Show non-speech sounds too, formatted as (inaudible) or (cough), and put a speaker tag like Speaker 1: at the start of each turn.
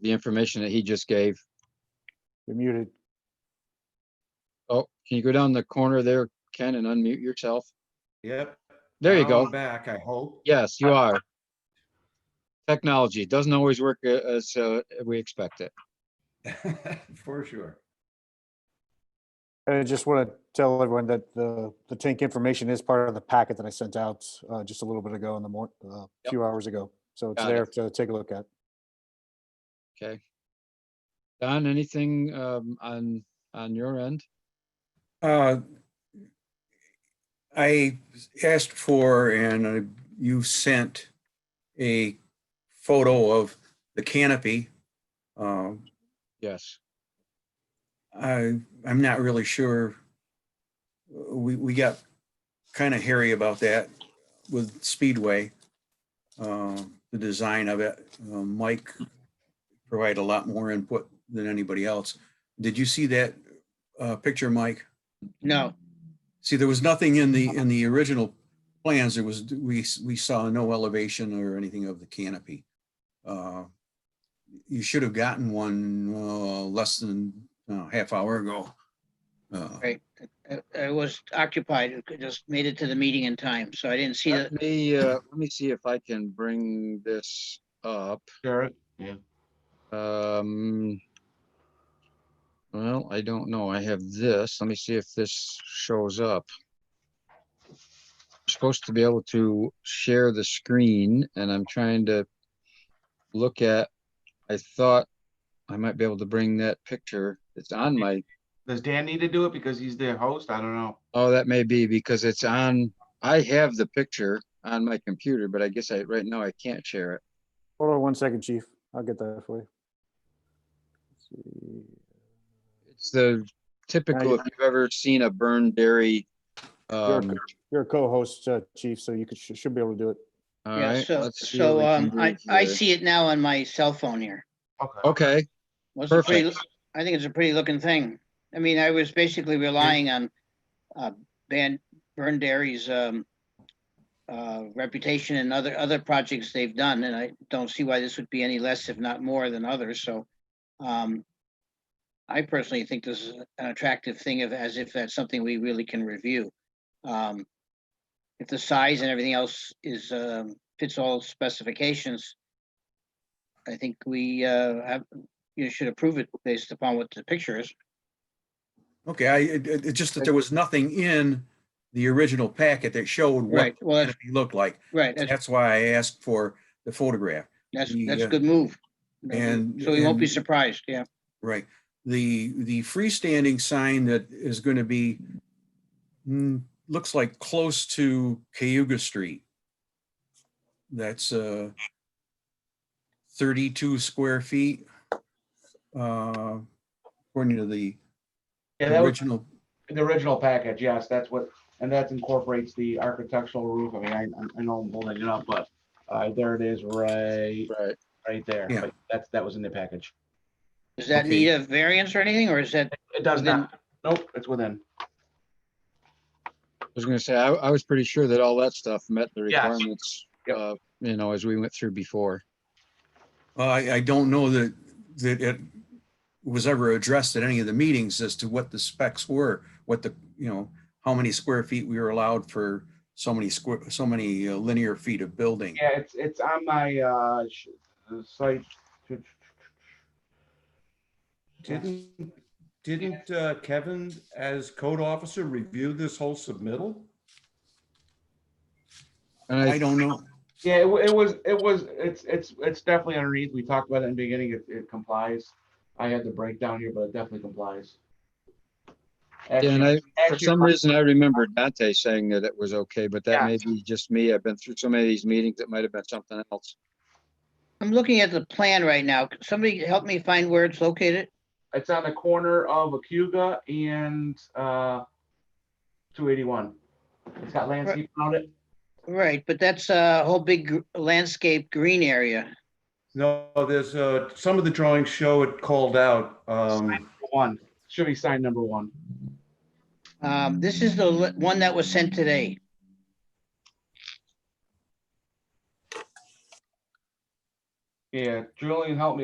Speaker 1: the information that he just gave.
Speaker 2: You're muted.
Speaker 1: Oh, can you go down the corner there, Ken, and unmute yourself?
Speaker 3: Yep.
Speaker 1: There you
Speaker 3: now I'm
Speaker 1: go.
Speaker 3: Back, I hope.
Speaker 1: Yes, you are. Technology it doesn't always work a- as uh, we expect it.
Speaker 3: (laughs) For sure.
Speaker 2: And I just want to tell everyone that the, the tank information is part of the packet that I sent out uh, just a little bit ago in the morning, a
Speaker 1: Yep.
Speaker 2: few hours ago. So it's
Speaker 1: Got
Speaker 2: there to take a look at.
Speaker 1: Okay. Don, anything um, on, on your end?
Speaker 4: Uh, I asked for and uh, you sent a photo of the canopy. Um,
Speaker 1: Yes.
Speaker 4: I, I'm not really sure. We, we got kind of hairy about that with Speedway. um, The design of it, Uh, Mike provided a lot more input than anybody else. Did you see that uh, picture, Mike?
Speaker 5: No,
Speaker 4: See, there was nothing in the, in the original plans, there was, we, we saw no elevation or anything of the canopy. Uh, You should have gotten one uh, less than uh, half hour ago. Uh,
Speaker 5: right. I- I was occupied, I could- just made it to the meeting in time, so I didn't see
Speaker 1: Let
Speaker 5: that.
Speaker 1: me, uh, let me see if I can bring this up.
Speaker 3: Sure.
Speaker 1: Um. Well, I don't know. I have this. Let me see if this shows up. Supposed to be able to share the screen and I'm trying to look at, I thought I might be able to bring that picture. It's on my,
Speaker 6: Does Dan need to do it because he's the host? I don't know.
Speaker 1: oh, that may be because it's on, I have the picture on my computer, but I guess I, right now I can't share it.
Speaker 2: Hold on one second, chief. I'll get that for you. Let's see.
Speaker 1: It's the typical, if you've ever seen a burned dairy.
Speaker 2: You're a
Speaker 1: Um,
Speaker 2: co- You're a co-host, uh, chief, so you could, should should be able to do it.
Speaker 1: all
Speaker 5: Yeah,
Speaker 1: right.
Speaker 5: so,
Speaker 1: let's see what
Speaker 5: so,
Speaker 1: we can
Speaker 5: um,
Speaker 1: do
Speaker 5: I, I
Speaker 1: here.
Speaker 5: see it now on my cell phone here.
Speaker 6: Okay.
Speaker 1: Okay,
Speaker 5: Well, it's a pretty-
Speaker 1: Perfect.
Speaker 5: I think it's a pretty looking thing. I mean, I was basically relying on, uh, Van, Burn Dairy's, um, uh, reputation and other, other projects they've done, and I don't see why this would be any less, if not more than others, so, um, I personally think this is an attractive thing of, as if that's something we really can review. Um, if the size and everything else is, um, fits all specifications, I think we, uh, have, you should approve it based upon what the picture is.
Speaker 4: Okay, I, it, it- it's just that there was nothing in the original packet that showed what
Speaker 5: Right, well, that's,
Speaker 4: canopy looked like.
Speaker 5: right, that's,
Speaker 4: That's why I asked for the photograph.
Speaker 5: that's,
Speaker 4: the,
Speaker 5: that's
Speaker 4: uh,
Speaker 5: a good move.
Speaker 4: and-
Speaker 5: So we won't be
Speaker 4: and-
Speaker 5: surprised, yeah.
Speaker 4: Right. The, the freestanding sign that is going to be, mm, looks like close to Cayuga Street. That's uh 32 square feet. uh, According to the
Speaker 6: Yeah, that was
Speaker 4: original,
Speaker 6: the original package. Yes, that's what, and that incorporates the architectural roof. I mean, I, I know I'm holding it up, but uh, there it is, right,
Speaker 1: right.
Speaker 6: right there.
Speaker 4: Yeah.
Speaker 6: But That's, that was in the package.
Speaker 5: Does that
Speaker 4: Okay.
Speaker 5: need a variance or anything, or is that,
Speaker 6: It does
Speaker 5: Within-
Speaker 6: not, nope, it's within.
Speaker 1: I was gonna say, I, I was pretty sure that all that stuff met the
Speaker 6: Yes.
Speaker 1: requirements,
Speaker 6: Yep.
Speaker 1: uh, you know, as we went through before.
Speaker 4: uh, I, I don't know that, that it was ever addressed at any of the meetings as to what the specs were, what the, you know, how many square feet we were allowed for so many square, so many uh, linear feet of building.
Speaker 6: Yeah, it's, it's on my, uh, sh- the site.
Speaker 3: Didn't, didn't uh, Kevin, as code officer, review this whole submittal?
Speaker 1: And
Speaker 4: I
Speaker 1: I,
Speaker 4: don't know.
Speaker 6: Yeah, it, wa- it was, it was, it's, it's, it's definitely underneath. We talked about it in the beginning. It, it complies. I had the breakdown here, but it definitely complies.
Speaker 1: yeah, and
Speaker 6: Actually-
Speaker 1: I, for
Speaker 6: actually-
Speaker 1: some reason, I remember Dante saying that it was okay, but that may be just me. I've been through so many of these meetings, it might have been something else.
Speaker 5: I'm looking at the plan right now. Could Somebody help me find where it's located?
Speaker 6: It's on the corner of Acuga and uh, 281. It's got landscape on it.
Speaker 5: Right, but that's a whole big gr- landscape green area.
Speaker 3: No, there's, uh, some of the drawings show it called out. Um,
Speaker 6: One should be sign number one.
Speaker 5: Um, this is the li- one that was sent today.
Speaker 6: Yeah, Julian helped me.